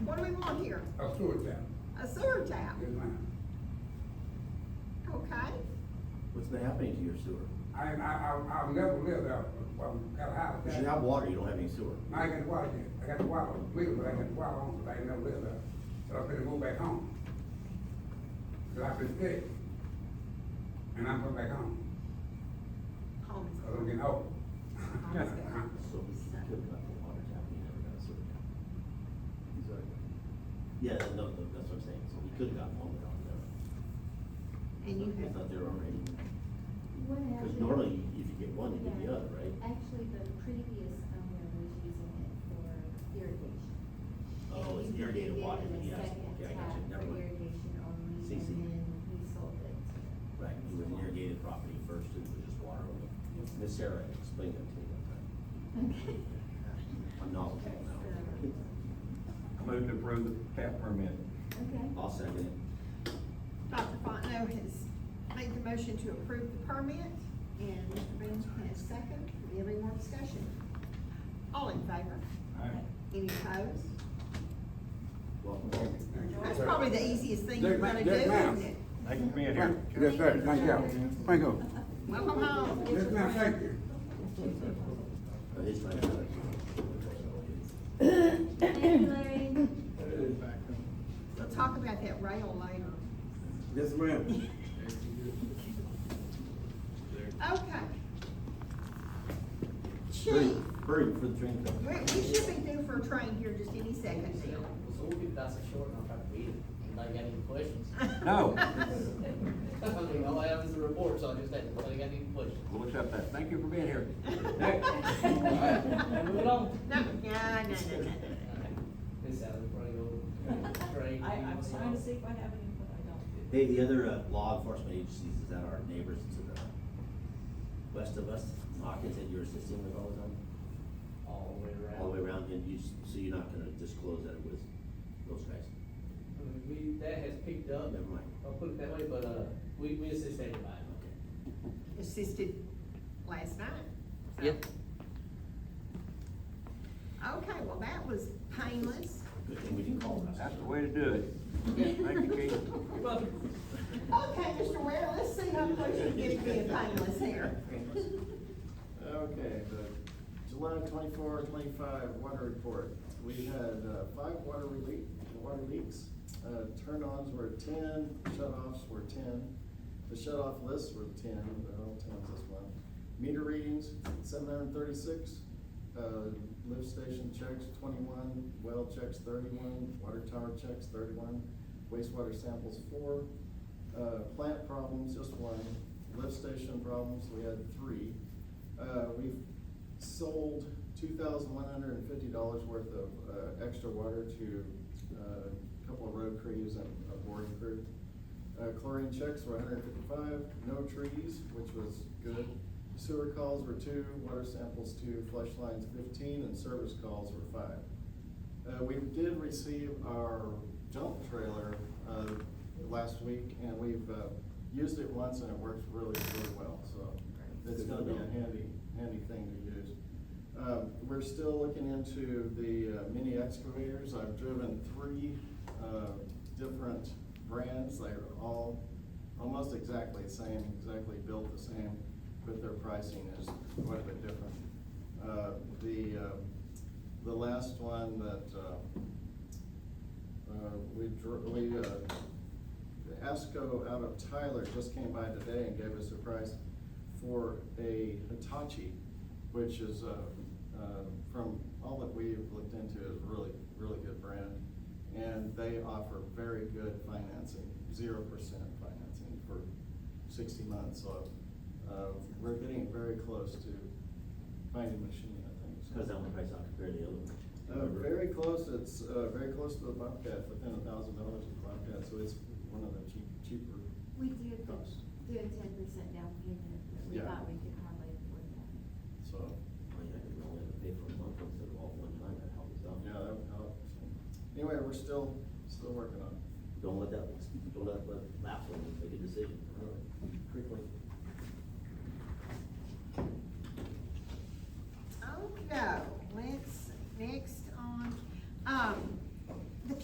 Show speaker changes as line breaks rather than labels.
a sewer tap.
a sewer tap,
Yes, ma'am.
okay?
What's been happening to your sewer?
I, I, I, I've never lived out, I've got a house.
Because you have water, you don't have any sewer.
I ain't got the water yet. I got the water, we, but I got the water on, but I ain't never lived out. So I better go back home. Cause I've been sick. And I'm going back home,
Home is
cause I'm getting old.
Yes.
So we can cook up the water tap, we never got a sewer tap. He's already. Yeah, that- no, no, that's what I'm saying, so we could have gotten one without the other.
And you
I thought
have,
they were already,
What
because
happened?
normally you- if you get one, you get the
Yeah.
other, right?
Actually, the previous owner was using it for irrigation.
Oh, it's
And you could
irrigated
get
water,
in a
yes.
second
Yeah, I got
tap
you. Never mind.
for Irrigation only,
See,
and
see.
then he sold it.
Right, it was an irrigated property first, it was just water only. Miss Sarah explained that to me one time.
Okay.
I'm knowledgeable
uh,
I move to approve the tap permit.
Okay.
now. I'll second it.
Dr. Fontenot has made the motion to approve the permit, and Mr. Boone has second. Do we have any more discussion? All in favor? Any opposed?
Welcome.
That's probably the easiest thing you're gonna do,
Yes, ma'am.
isn't it?
Thank you for being
Thank-
here.
Yes, sir, thank you. Thank you.
Welcome home.
Yes, ma'am, thank you.
Uh, he's trying to-
Thank you, Larry.
We'll talk about that rail later.
Yes, ma'am.
Okay. Chief,
Hurry, hurry for the train
we,
coming.
we should be due for a train here just any second now.
Well, so we'll get that short and I'll try to beat it. Anybody got any questions?
No.
I mean, all I have is a report, so I just had, anybody got any questions?
What's up there? Thank you for being here.
Alright, moving on.
No, no, no, no, no, no.
This out of the break.
I, I'm trying to see if I have any, but I don't.
Hey, the other uh, law enforcement agencies is that our neighbors to the west of us, Hawkins, that you're assisting with all the time?
All the way around.
All the way around, and you, s- so you're not gonna disclose that it was those guys? Oh,
I mean, We, that has picked up.
Never mind.
I'll put it that way, but, uh, we, we assist everybody.
Okay.
assisted last night. so.
Yep.
Okay, well, that was painless.
Good thing we didn't call us.
That's the way to do it. Thank you, Keith.
You're welcome.
Okay, Mr. Ware, let's see how close you get to being painless here.
Okay, the July 24, 25 water report. We had uh, five water relief, water leaks. Uh, turn-ons were ten, shut-offs were ten. The shut-off lists were ten, they're all tens this month. Meter readings, seven hundred and thirty-six. Uh, lift station checks, twenty-one. Well checks, thirty-one. Water tower checks, thirty-one. Wastewater samples, four. Uh, plant problems, just one. Lift station problems, we had three. Uh, we've sold two thousand one hundred and fifty dollars worth of, uh, extra water to, uh, a couple of road crews and a boring crew. Uh, chlorine checks were hundred and fifty-five, no trees, which was good. Sewer calls were two, water samples two, flush lines fifteen, and service calls were five. Uh, we did receive our dump trailer, uh, last week, and we've, uh, used it once and it works really, really well, so. It's gonna be a handy, handy thing to use. Uh, we're still looking into the uh, mini excavators. I've driven three, uh, different brands. They're all almost exactly the same, exactly built the same, but their pricing is quite a bit different. Uh, the, uh, the last one that, uh, uh, we dr- we, uh, Esco out of Tyler just came by today and gave us a price for a Hitachi, which is, uh, uh, from all that we've looked into, is really, really good brand. And they offer very good financing, zero percent financing for sixty months, so, uh, we're getting very close to finding a machine, I think. so.
Cause that one price out compared to the other one.
Uh, very close, it's, uh, very close to the Bobcat, within a thousand dollars of the Bobcat, so it's one of the cheap, cheaper.
We did, the-
Cost.
do a ten percent down payment, but we
Yeah.
thought we could hardly afford that.
So,
Oh, yeah, you only have to pay for a month instead of all at one time, that helps out.
yeah, that would help. So, Anyway, we're still, still working on it.
Don't let that, don't let that lapse on you, make a decision. Quickly.
Okay. um,